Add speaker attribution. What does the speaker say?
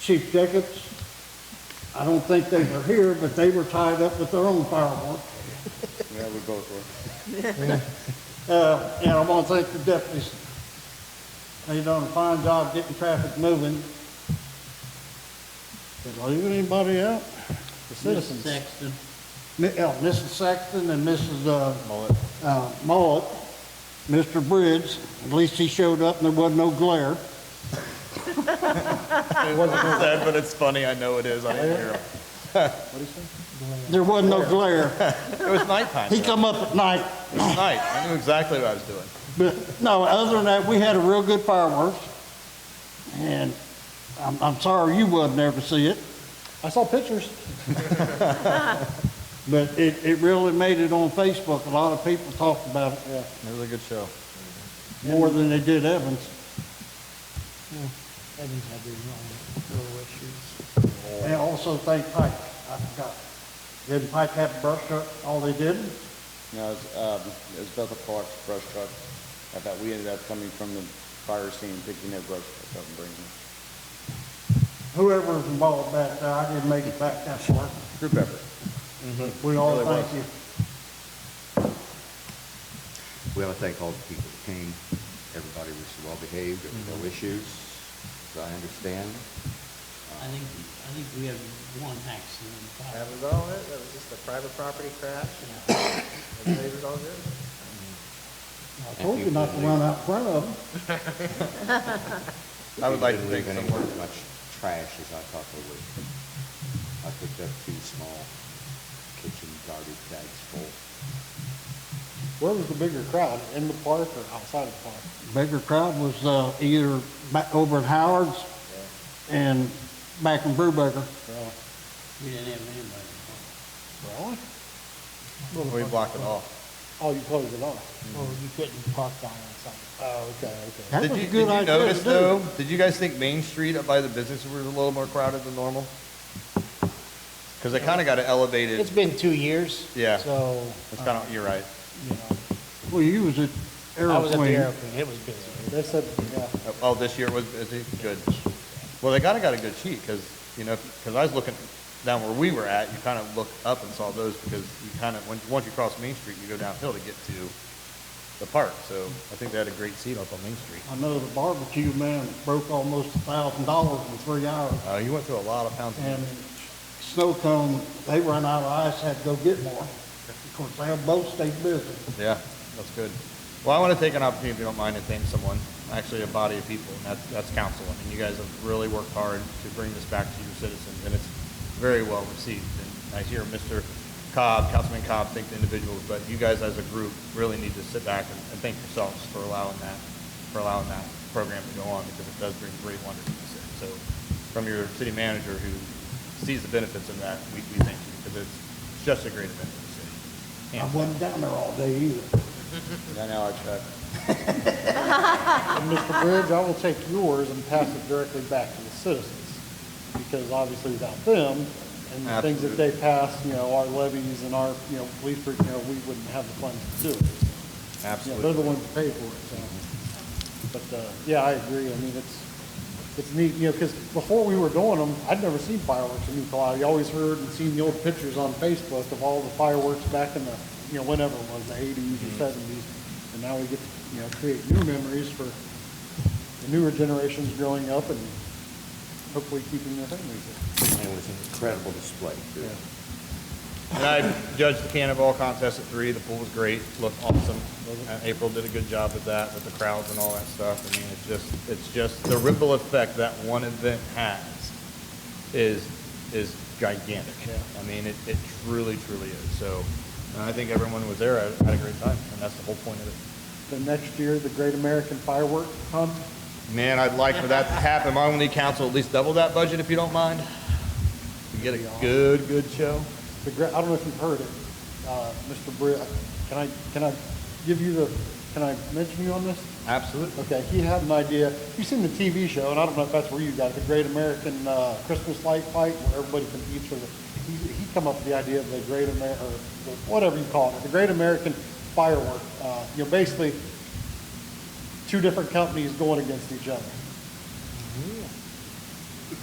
Speaker 1: Chief Jacobs, I don't think they were here, but they were tied up with their own fireworks.
Speaker 2: Yeah, we both were.
Speaker 1: Uh, and I want to thank the deputies. They done a fine job getting traffic moving. Did I leave anybody out? The
Speaker 3: Mrs.
Speaker 1: citizens.
Speaker 3: Sexton,
Speaker 1: Mi- oh, Mrs. Sexton and Mrs. uh, uh, Mullet, Mr. Bridge, at least he showed up and there wasn't no glare.
Speaker 4: Sad, but it's funny. I know it is. I didn't hear him.
Speaker 1: There wasn't no glare.
Speaker 4: It was nighttime.
Speaker 1: He
Speaker 4: though.
Speaker 1: come up at night,
Speaker 4: It was night. I knew exactly what I was doing.
Speaker 1: but no, other than that, we had a real good fireworks. And I'm, I'm sorry you wasn't there to see it,
Speaker 2: I saw pictures.
Speaker 1: but it, it really made it on Facebook. A lot of people talked about it
Speaker 2: Yeah, it was a good show.
Speaker 1: more than they did Evans.
Speaker 3: Evans had his own little issues.
Speaker 1: And also thank Pike, I forgot. Didn't Pike have a brush truck? All they did?
Speaker 2: No, it was, um, it was Bethel Park's brush truck. I
Speaker 4: uh,
Speaker 2: thought we ended up coming from the fire scene, picking their brush truck up and bringing it.
Speaker 1: whoever was involved back there, I didn't make it back that far.
Speaker 2: Group effort.
Speaker 1: We all thank you.
Speaker 5: We want to thank all the people that came. Everybody was well behaved, there were no
Speaker 4: Mm-hmm.
Speaker 5: issues, as I understand.
Speaker 3: I think, I think we have one accident. in five.
Speaker 6: That was all it, that was just a private property crash, and everybody was all good.
Speaker 1: I told you not to run out in front of them.
Speaker 4: I would like to
Speaker 5: Didn't leave
Speaker 4: think
Speaker 5: any
Speaker 4: somewhere.
Speaker 5: Much trash as I thought they would. I picked up two small kitchen garbage bags full.
Speaker 2: Where was the bigger crowd, in the park or outside of the park?
Speaker 1: Bigger crowd was, uh, either back over at Howard's and back in Brewbaker.
Speaker 3: We didn't have anybody.
Speaker 2: Really?
Speaker 4: We blocked it off.
Speaker 2: Oh, you closed it off?
Speaker 3: Well, you couldn't park down on something.
Speaker 2: Oh, okay, okay.
Speaker 1: That
Speaker 4: Did
Speaker 1: was
Speaker 4: you,
Speaker 1: a
Speaker 4: did
Speaker 1: good
Speaker 4: you
Speaker 1: idea
Speaker 4: notice
Speaker 1: to do.
Speaker 4: though? Did you guys think Main Street up by the businesses was a little more crowded than normal? Because they kind of got it elevated.
Speaker 3: It's been two years.
Speaker 4: Yeah.
Speaker 3: So, uh,
Speaker 4: It's kind of, you're right.
Speaker 3: you know,
Speaker 1: Well, you was at
Speaker 3: I was at the
Speaker 1: Aeroplane.
Speaker 3: airplane, it was busy.
Speaker 2: They said, yeah.
Speaker 4: Oh, this year was busy? Good. Well, they kind of got a good sheet because, you know, because I was looking down where we were at, you kind of look up and saw those because you kind of, once, once you cross Main Street, you go downhill to get to the park. So I think they had a great seat up on Main Street.
Speaker 1: I know the barbecue man broke almost a thousand dollars in three hours.
Speaker 4: Uh, you went through a lot of pounds. of-
Speaker 1: And Snow Cone, they run out of ice, had to go get more. Of course, they have both stayed busy.
Speaker 4: Yeah, that's good. Well, I want to take an opportunity, if you don't mind, to thank someone, actually a body of people, and that's, that's council. I mean, you guys have really worked hard to bring this back to your citizens, and it's very well received. And I hear Mr. Cobb, Councilman Cobb, thank the individuals, but you guys as a group really need to sit back and, and thank yourselves for allowing that, for allowing that program to go on, because it does bring great wonder to the city. So from your city manager who sees the benefits of that, we, we thank you, because it's just a great event for the city.
Speaker 1: I wasn't down there all day either.
Speaker 2: Yeah, now I check. Mr. Bridge, I will take yours and pass it directly back to the citizens, because obviously without them, and the things that they pass, you know, our levies and our, you know, police, you know, we wouldn't have the funds to do it. Yeah, they're the ones that pay for it, so. But, uh, yeah, I agree, I mean, it's, it's neat, you know, because before we were doing them, I'd never seen fireworks in New Palauw. You always heard and seen the old pictures on Facebook of all the fireworks back in the, you know, whenever it was, the eighties or seventies. And now we get, to, you know, create new memories for the newer generations growing up and hopefully keeping their memories.
Speaker 5: And it was an incredible display, too.
Speaker 4: And I judged the cannonball contest at three. The pool was great, looked awesome. And April did a good job with that, with the crowds and all that stuff. I mean, it's just, it's just the ripple effect that one event has is, is gigantic. I mean, it, it truly, truly is. So, and I think everyone was there, had had a great time, and that's the whole point of it.
Speaker 2: The next year, the Great American Firework Hunt,
Speaker 4: Man, I'd like for that to happen. My only council, at least double that budget if you don't mind. We get a good, good show.
Speaker 2: The, gra- I don't know if you've heard it, uh, Mr. Britt, can I, can I give you the, can I mention you on this?
Speaker 4: Absolutely.
Speaker 2: Okay, he had an idea, you've seen the TV show, and I don't know if that's where you got it, the Great American, uh, Christmas Light Fight, where everybody competes for the, he, he come up with the idea of the Great Amer, or the- whatever you call it, the Great American Firework, uh, you know, basically, two different companies going against each other.